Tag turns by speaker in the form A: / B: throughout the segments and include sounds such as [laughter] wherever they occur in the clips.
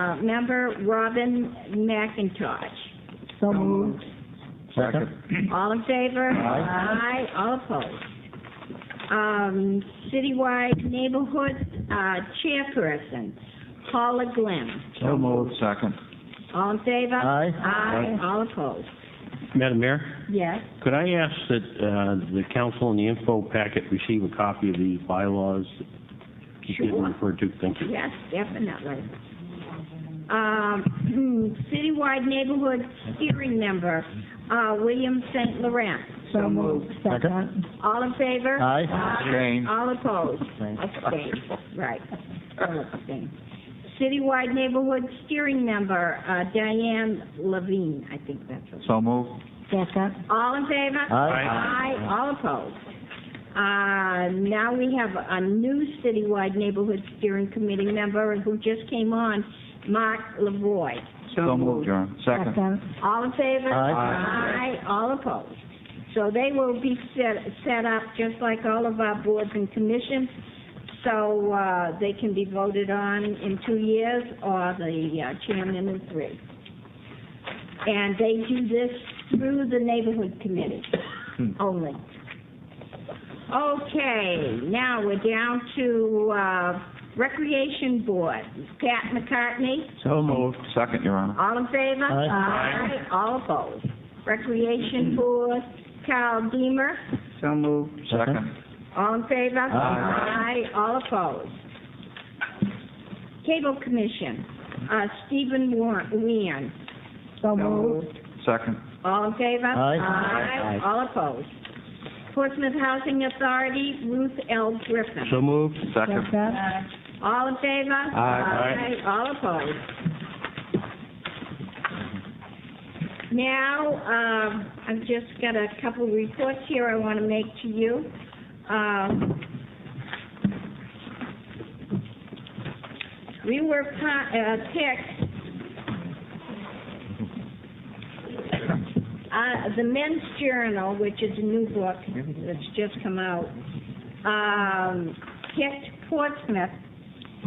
A: Uh, member Robin McIntosh.
B: So moved.
C: Second.
A: All in favor? Aye,
C: Aye.
A: all opposed. Um, citywide neighborhood, uh, chairperson, Paula Glenn.
C: So moved. Second.
A: All in favor?
B: Aye.
A: Aye, all opposed.
D: Madam Mayor,
A: Yes.
D: could I ask that uh, the council and the info packet receive a copy of these bylaws? Just getting
A: Sure.
D: referred to, thank you.
A: Yes, definitely. Um, citywide neighborhood steering member, uh, William St. Laurent.
B: So moved. Second.
A: All in favor?
B: Aye.
C: Abstain.
A: All opposed?
B: Abstain.
A: Abstain, right. All abstain. Citywide neighborhood steering member, uh, Diane Levine, I think that's her.
C: So moved.
B: Second.
A: All in favor?
B: Aye.
A: Aye, all opposed. Uh, now we have a new citywide neighborhood steering committee member who just came on, Mark Lavoy.
C: So moved, Your Honor. Second.
A: All in favor?
B: Aye.
A: Aye, all opposed. So they will be set, set up just like all of our boards and commissions, so, uh, they can be voted on in two years, or the uh, chairman in three. And they do this through the neighborhood committee only. Okay, now we're down to, uh, Recreation Board. Pat McCartney?
D: So moved.
C: Second, Your Honor.
A: All in favor?
B: Aye.
A: Aye. All opposed. Recreation Board, Carl Deemer,
B: So moved.
C: Second.
A: all in favor?
C: Aye.
A: Aye. all opposed. Cable Commission, uh, Stephen Wa- Wean,
B: So moved.
C: Second.
A: all in favor?
B: Aye. Aye.
A: Aye, all opposed. Portsmouth Housing Authority, Ruth L. Griffin.
D: So moved.
C: Second.
A: Uh, All in favor?
C: Aye.
A: Aye. All opposed? Now, um, I've just got a couple reports here I want to make to you. Um, We were pa- uh, picked, uh, the Men's Journal, which is a new book that's just come out, um, picked Portsmouth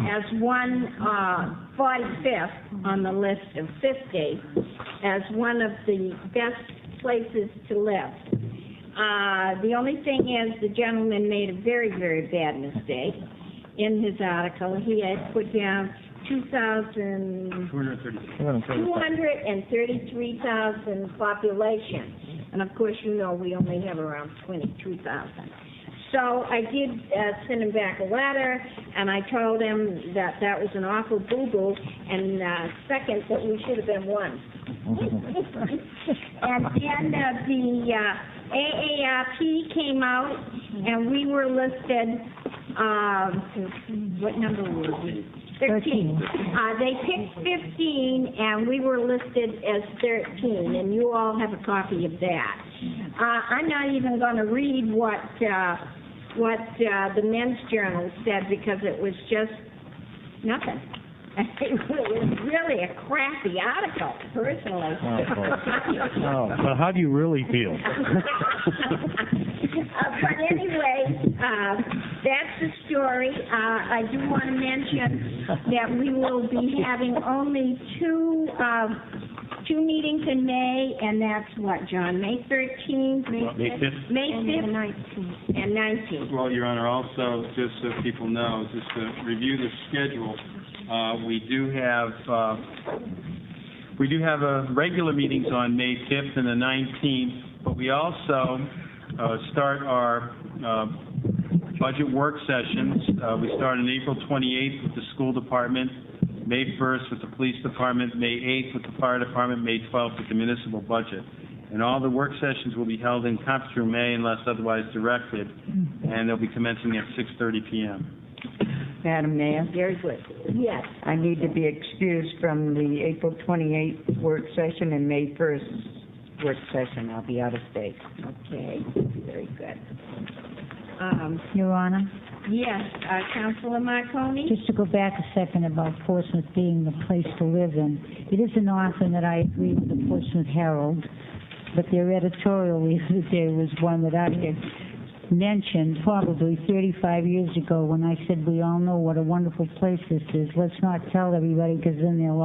A: as one, uh, 45th on the list of 50, as one of the best places to live. Uh, the only thing is, the gentleman made a very, very bad mistake in his article. He had put down 2,000... Two hundred and thirty-three thousand population, and of course, you know, we only have around twenty-two thousand. So I did, uh, send him back a letter, and I told him that that was an awful boo-boo, and, uh, second, that we should have been one. [laughs] And then, uh, the, uh, AARP came out, and we were listed, um, what number were we? Thirteen. Uh, they picked fifteen, and we were listed as thirteen, and you all have a copy of that. Uh, I'm not even gonna read what, uh, what, uh, the men's journal said, because it was just nothing. [laughs] It was really a crappy article, personally. [laughs]
D: Oh, well, how do you really feel?
A: Uh, But anyway, uh, that's the story. Uh, I do want to mention that we will be having only two, um, two meetings in May, and that's what, John, May 13th?
D: May fifth.
A: May 5th? And 19th.
E: Well, Your Honor, also, just so people know, just to review the schedule, uh, we do have, uh, we do have uh, regular meetings on May 5th and the 19th, but we also uh, start our uh, budget work sessions. Uh, We start on April 28th with the school department, May 1st with the police department, May 8th with the fire department, May 12th with the municipal budget. And all the work sessions will be held in conference room A unless otherwise directed, and they'll be commencing at 6:30 PM.
F: Madam Mayor,
A: Very good. Yes.
F: I need to be excused from the April 28th work session and May 1st work session. I'll be out of state.
A: Okay, very good. Um,
G: Your Honor,
A: Yes, uh, Councilor Marconi?
G: just to go back a second about Portsmouth being the place to live in, it isn't often that I agree with the Portsmouth Herald, but their editorial [laughs] the other day was one that I had mentioned probably 35 years ago when I said, "We all know what a wonderful place this is. Let's not tell everybody because then they'll